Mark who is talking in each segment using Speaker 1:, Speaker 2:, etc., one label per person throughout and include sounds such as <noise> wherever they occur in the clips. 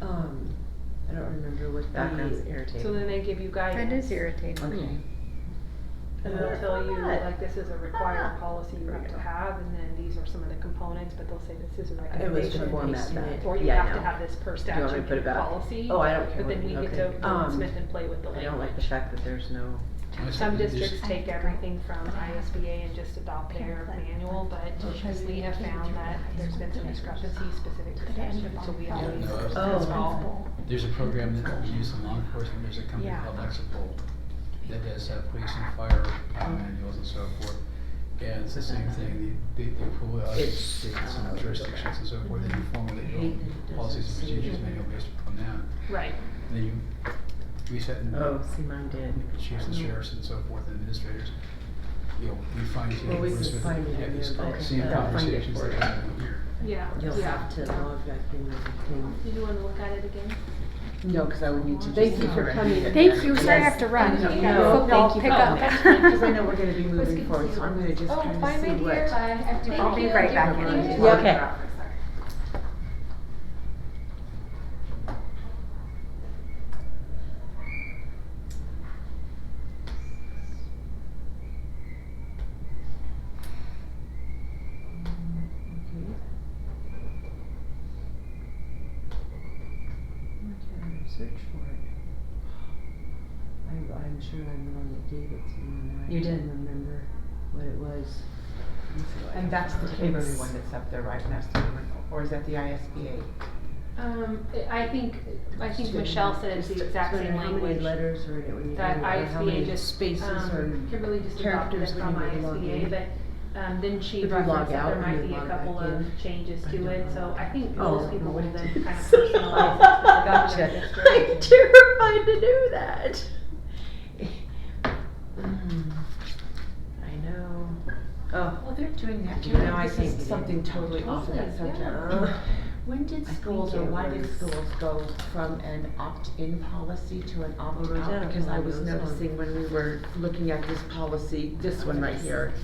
Speaker 1: Um,
Speaker 2: Background's
Speaker 3: So then
Speaker 2: irritating.
Speaker 3: they give you guidance.
Speaker 4: That is irritating.
Speaker 2: Okay.
Speaker 3: And they'll tell you,
Speaker 5: Good.
Speaker 3: like, this is a required policy you have to
Speaker 2: Right.
Speaker 3: have, and then these are some of the components, but they'll say this is a
Speaker 2: It was
Speaker 3: recommendation.
Speaker 2: to format that.
Speaker 3: Or you
Speaker 2: Yeah, I
Speaker 3: have to
Speaker 2: know.
Speaker 3: have this per
Speaker 2: you want me to
Speaker 3: statute
Speaker 2: put
Speaker 3: in
Speaker 2: it
Speaker 3: your
Speaker 2: back?
Speaker 3: policy.
Speaker 2: Oh, I don't care
Speaker 3: But
Speaker 2: what
Speaker 3: then we
Speaker 2: you-
Speaker 3: get
Speaker 2: okay.
Speaker 3: to
Speaker 2: Um,
Speaker 3: wordsmith and play with the
Speaker 2: I
Speaker 3: language.
Speaker 2: don't like the fact that there's no,
Speaker 3: Some
Speaker 6: Just-
Speaker 3: districts
Speaker 4: I
Speaker 3: take
Speaker 4: think-
Speaker 3: everything from ISBA and just adopt their
Speaker 4: Yeah, but-
Speaker 3: manual, but
Speaker 4: Because
Speaker 3: we have
Speaker 4: they do
Speaker 3: found
Speaker 4: that.
Speaker 3: that there's been some discrepancies specific to
Speaker 4: Could end
Speaker 3: statute,
Speaker 4: up
Speaker 3: so
Speaker 4: on
Speaker 3: we
Speaker 4: the
Speaker 3: always.
Speaker 6: Yeah, no, it's-
Speaker 3: that's
Speaker 2: Oh.
Speaker 3: awful.
Speaker 6: There's a program that we use in law enforcement, there's a company
Speaker 4: Yeah.
Speaker 6: called Lexipol that does uh, police and fire uh, manuals and so forth. And it's the same thing, they, they, they pull out
Speaker 2: It's-
Speaker 6: states and jurisdictions and so forth, and you formulate your
Speaker 1: Mm-hmm. Hate that it doesn't
Speaker 6: policies and
Speaker 1: say
Speaker 6: procedures
Speaker 1: that.
Speaker 6: manual based upon that.
Speaker 3: Right.
Speaker 6: And then you reset and
Speaker 2: oh, see mine did.
Speaker 6: choose the sheriffs and so forth, and administrators. You know, we find you
Speaker 1: Well, we
Speaker 6: words
Speaker 1: can
Speaker 6: with,
Speaker 1: find it
Speaker 6: have
Speaker 1: in
Speaker 6: these
Speaker 1: there, but-
Speaker 6: same
Speaker 2: Okay. I'll find it
Speaker 6: conversations
Speaker 2: for
Speaker 6: that
Speaker 2: you.
Speaker 6: happen here.
Speaker 3: Yeah,
Speaker 1: You'll
Speaker 3: yeah.
Speaker 1: have to log back in with the thing.
Speaker 3: Did you wanna look at it again?
Speaker 2: No, cause I would need to.
Speaker 1: Thank
Speaker 2: just
Speaker 1: you for
Speaker 2: correct
Speaker 1: coming.
Speaker 2: it.
Speaker 4: Thank you, sorry I
Speaker 2: Yes.
Speaker 4: have to run.
Speaker 2: No,
Speaker 4: I
Speaker 2: no,
Speaker 4: have a football
Speaker 2: thank you.
Speaker 4: pickup.
Speaker 1: <laughs>
Speaker 2: Oh,
Speaker 7: <laughs>
Speaker 2: Cause I know we're gonna be moving forward, so I'm gonna just
Speaker 8: Oh,
Speaker 2: kinda
Speaker 8: bye, my
Speaker 2: see
Speaker 8: dear.
Speaker 2: what.
Speaker 4: I'll be right back in.
Speaker 2: Thank
Speaker 8: Thank
Speaker 2: you.
Speaker 8: you.
Speaker 2: Okay.
Speaker 1: Where can I search for it? I, I'm sure I'm the one that gave it to you and I
Speaker 2: You
Speaker 1: can't
Speaker 2: did.
Speaker 1: remember what it was.
Speaker 7: And that's the Haverly one that's up there right next to him, or is that the ISBA?
Speaker 3: Um, I I think, I think Michelle said it's the exact same
Speaker 1: How many
Speaker 3: language.
Speaker 1: letters are in it when you
Speaker 3: That
Speaker 1: go, or how
Speaker 3: ISBA
Speaker 1: many
Speaker 2: <laughs>
Speaker 3: just.
Speaker 1: spaces
Speaker 2: Uh,
Speaker 3: um,
Speaker 1: or
Speaker 3: Kimberly just adopted it
Speaker 1: characters
Speaker 3: from
Speaker 1: when you would log
Speaker 3: ISBA,
Speaker 1: in?
Speaker 3: but, um, then she
Speaker 1: If you
Speaker 3: referenced
Speaker 1: log
Speaker 3: that
Speaker 1: out
Speaker 3: there
Speaker 1: and
Speaker 3: might
Speaker 1: you
Speaker 3: be a
Speaker 1: log back
Speaker 3: couple of
Speaker 1: in,
Speaker 3: changes
Speaker 1: I
Speaker 3: to
Speaker 1: don't
Speaker 3: it,
Speaker 1: know.
Speaker 3: so I think
Speaker 1: Oh,
Speaker 3: most people
Speaker 1: what
Speaker 3: will
Speaker 1: it
Speaker 3: then
Speaker 1: is.
Speaker 3: kind
Speaker 2: <laughs>
Speaker 3: of personalize
Speaker 1: <laughs>
Speaker 3: it to the government
Speaker 2: Gotcha.
Speaker 3: district.
Speaker 2: terrified to do that. Mm, I know. Oh.
Speaker 7: Well, they're doing that
Speaker 2: too.
Speaker 7: too. Now, I
Speaker 2: This is
Speaker 7: think something totally off of that
Speaker 3: Totally,
Speaker 7: subject.
Speaker 2: uh,
Speaker 7: When did
Speaker 1: I
Speaker 7: schools, or
Speaker 1: think it
Speaker 7: why did
Speaker 1: was-
Speaker 7: schools go from an opt-in policy to an
Speaker 2: Rosanna
Speaker 7: opt-out? Because I
Speaker 2: probably
Speaker 7: was
Speaker 2: knows that.
Speaker 7: noticing when we were looking at this policy, this one right here,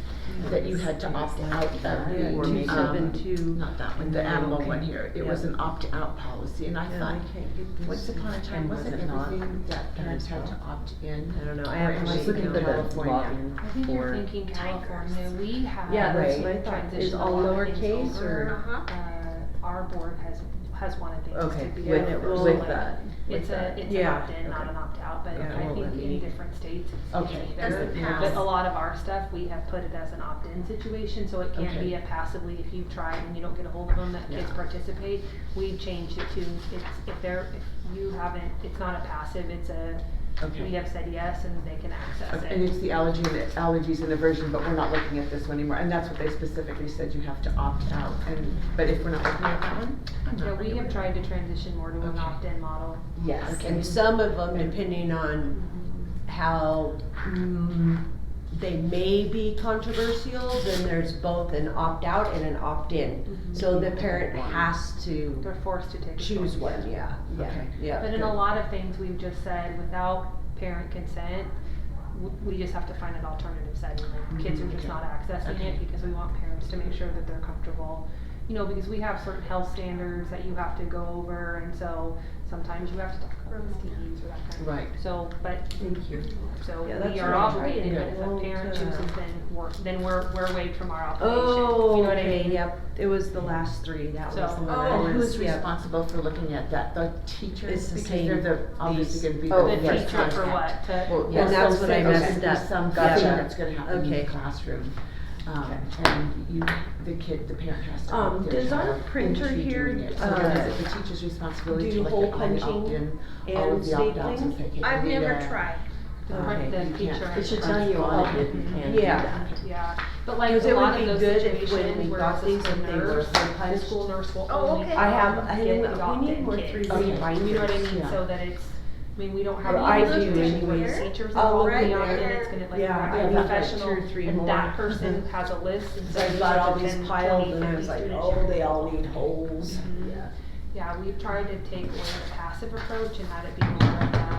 Speaker 2: <laughs>
Speaker 7: that you had to opt out of
Speaker 2: Yeah,
Speaker 7: the,
Speaker 2: two seven
Speaker 7: um,
Speaker 2: two.
Speaker 1: Not that one.
Speaker 7: the animal
Speaker 2: okay.
Speaker 7: one here. It was
Speaker 2: Yeah.
Speaker 7: an opt-out policy, and I
Speaker 2: Yeah,
Speaker 7: thought,
Speaker 2: I can't get this.
Speaker 7: once upon a time,
Speaker 2: And was
Speaker 7: wasn't
Speaker 2: it not?
Speaker 7: everything that parents had to
Speaker 2: well?
Speaker 7: opt in?
Speaker 2: I don't know, I have.
Speaker 7: Or am I
Speaker 2: my
Speaker 7: looking
Speaker 2: email
Speaker 7: at the
Speaker 2: login
Speaker 7: login?
Speaker 3: I think you're
Speaker 2: for-
Speaker 3: thinking uh, California, we have.
Speaker 2: Yeah, that's what I
Speaker 3: transitioned
Speaker 2: thought.
Speaker 3: a
Speaker 2: Is
Speaker 3: lot
Speaker 2: all
Speaker 3: of things
Speaker 2: lowercase
Speaker 3: over.
Speaker 2: or-
Speaker 3: Uh, our board has, has wanted things
Speaker 2: Okay,
Speaker 3: to be.
Speaker 2: with,
Speaker 3: a little
Speaker 2: with
Speaker 3: like-
Speaker 2: that. with
Speaker 3: It's a,
Speaker 2: that.
Speaker 3: it's an
Speaker 2: Yeah,
Speaker 3: opt-in, not
Speaker 2: okay.
Speaker 3: an opt-out, but
Speaker 2: Yeah, it
Speaker 3: I
Speaker 2: won't
Speaker 3: think
Speaker 2: let
Speaker 3: in
Speaker 2: me-
Speaker 3: different states, it's
Speaker 7: Okay.
Speaker 3: either.
Speaker 4: Doesn't
Speaker 3: But
Speaker 4: pass.
Speaker 3: a lot of our stuff, we have put it as an opt-in situation, so it can
Speaker 7: Okay.
Speaker 3: be a passively, if you try and you don't get a hold of them, that kids
Speaker 7: Yeah.
Speaker 3: participate. We've changed it to, it's, if they're, if you haven't, it's not a passive, it's a, we
Speaker 7: Okay.
Speaker 3: have said yes and they can access it.
Speaker 7: And it's the allergy, allergies and aversion, but we're not looking at this one anymore, and that's what they specifically said, you have to opt out, and, but if we're not looking at that one, I'm not.
Speaker 3: Yeah, we
Speaker 7: looking
Speaker 3: have
Speaker 7: at
Speaker 3: tried to transition more to an
Speaker 7: Okay.
Speaker 3: opt-in model.
Speaker 1: Yes,
Speaker 7: Okay.
Speaker 1: and some of them, depending on how mm, they may be controversial, then there's both an opt-out and an opt-in. So the parent has to
Speaker 3: They're forced to take. a
Speaker 1: choose
Speaker 3: choice.
Speaker 1: one, yeah, yeah,
Speaker 7: Okay.
Speaker 1: yeah.
Speaker 3: But in
Speaker 1: good.
Speaker 3: a lot of things, we've just said, without parent consent, w- we just have to find an alternative setting. Like, Kids are just
Speaker 7: okay.
Speaker 3: not accessing it because we want parents to make sure that they're comfortable. You know, because we have certain health standards that you have to go over, and so sometimes you have to talk about STDs or that kind of thing.
Speaker 7: Right.
Speaker 3: So, but
Speaker 2: Thank you.
Speaker 3: So
Speaker 2: Yeah, that's
Speaker 3: we are
Speaker 2: what I'm
Speaker 3: obligated,
Speaker 2: trying
Speaker 3: but
Speaker 2: to
Speaker 3: if a
Speaker 2: hold
Speaker 3: parent
Speaker 2: to.
Speaker 3: chooses, then we're, then we're, we're waived from our obligation. You know
Speaker 1: Oh,
Speaker 3: what I
Speaker 1: okay,
Speaker 3: mean?
Speaker 1: yep, it was the last three, that was the
Speaker 3: So-
Speaker 1: one. I
Speaker 7: Oh,
Speaker 1: was-
Speaker 7: who's
Speaker 1: yep.
Speaker 7: responsible for looking at that? The
Speaker 1: It's
Speaker 7: teachers,
Speaker 1: the
Speaker 7: because
Speaker 1: same-
Speaker 7: they're the, obviously
Speaker 1: these-
Speaker 7: gonna be the
Speaker 1: oh,
Speaker 3: The
Speaker 1: yes,
Speaker 7: first
Speaker 3: teacher for what,
Speaker 7: contact.
Speaker 3: to,
Speaker 7: Well,
Speaker 1: Yeah,
Speaker 7: yes,
Speaker 1: that's
Speaker 7: so
Speaker 1: what I
Speaker 7: say there's
Speaker 1: messed
Speaker 7: gonna be
Speaker 1: up.
Speaker 7: Some
Speaker 1: Gotcha.
Speaker 7: thing that's gonna happen in
Speaker 1: Okay.
Speaker 7: the classroom. Um, and you, the kid, the parent has to
Speaker 1: Um,
Speaker 7: opt their
Speaker 1: does our
Speaker 7: child
Speaker 1: printer
Speaker 7: into
Speaker 1: here,
Speaker 7: doing it. So
Speaker 1: uh,
Speaker 7: then is it the teacher's responsibility
Speaker 1: do
Speaker 7: to
Speaker 1: hole
Speaker 7: look at all the
Speaker 1: punching
Speaker 7: opt-in, all
Speaker 1: and
Speaker 7: of oh, the opt-outs and
Speaker 1: stapling?
Speaker 7: pick it?
Speaker 8: I've never
Speaker 7: Yeah.
Speaker 8: tried.
Speaker 3: the
Speaker 7: Okay,
Speaker 3: print, the
Speaker 7: you can't.
Speaker 3: teacher.
Speaker 2: It should tell you on it if you can do
Speaker 1: Yeah.
Speaker 2: that.
Speaker 3: Yeah, but like
Speaker 1: Because
Speaker 3: a
Speaker 1: it would
Speaker 3: lot
Speaker 1: be
Speaker 3: of those
Speaker 1: good if when we
Speaker 3: situations where
Speaker 1: got
Speaker 3: it's
Speaker 1: these
Speaker 3: the school
Speaker 1: and they were
Speaker 3: nurse, the
Speaker 1: punched.
Speaker 3: school nurse will
Speaker 8: Oh,
Speaker 3: only.
Speaker 8: okay.
Speaker 1: I have, I
Speaker 3: get
Speaker 1: had,
Speaker 3: adopted
Speaker 1: we need more
Speaker 3: kids.
Speaker 1: three
Speaker 3: You
Speaker 7: Okay.
Speaker 1: reading
Speaker 3: know what I mean,
Speaker 7: Yeah.
Speaker 3: so that it's, I mean, we don't have.
Speaker 1: Or
Speaker 3: any
Speaker 1: I
Speaker 3: of those
Speaker 1: do
Speaker 3: things where
Speaker 1: anyways.
Speaker 3: Teachers
Speaker 1: I'll
Speaker 3: are
Speaker 1: look
Speaker 3: working
Speaker 1: in
Speaker 3: on it,
Speaker 8: there.
Speaker 3: and it's gonna like,
Speaker 1: Yeah, I
Speaker 3: grab
Speaker 1: have
Speaker 3: a
Speaker 1: like
Speaker 3: professional,
Speaker 1: two or three
Speaker 3: and
Speaker 1: more.
Speaker 3: that person has a list, and so.
Speaker 1: So I've
Speaker 3: these
Speaker 1: got
Speaker 3: are
Speaker 1: all
Speaker 3: the
Speaker 1: these
Speaker 3: 10,
Speaker 1: piled
Speaker 3: 20,
Speaker 1: and I was
Speaker 3: 50
Speaker 1: like,
Speaker 3: students
Speaker 1: oh,
Speaker 3: you're
Speaker 1: they all
Speaker 3: gonna
Speaker 1: need holes.
Speaker 3: Mhm.
Speaker 1: Yeah.
Speaker 3: Yeah, we've tried to take away the passive approach and have it be more like, uh,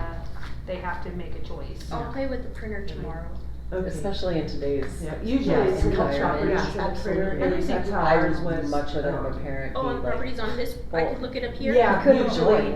Speaker 3: they have to make a choice.
Speaker 8: I'll play with the printer tomorrow.
Speaker 1: Okay.
Speaker 2: Especially in today's.
Speaker 7: Yeah, usually
Speaker 2: Yeah,
Speaker 7: it's
Speaker 2: in
Speaker 7: cultural,
Speaker 2: environment.
Speaker 7: yeah, absolutely.
Speaker 2: Everything
Speaker 7: That's how
Speaker 2: I
Speaker 7: ours
Speaker 2: would
Speaker 7: was.
Speaker 2: much rather have a parent
Speaker 8: Oh,
Speaker 2: be
Speaker 8: and
Speaker 2: like,
Speaker 8: properties on this, I could look it up here?
Speaker 1: Yeah,
Speaker 2: Could
Speaker 1: usually.
Speaker 2: join.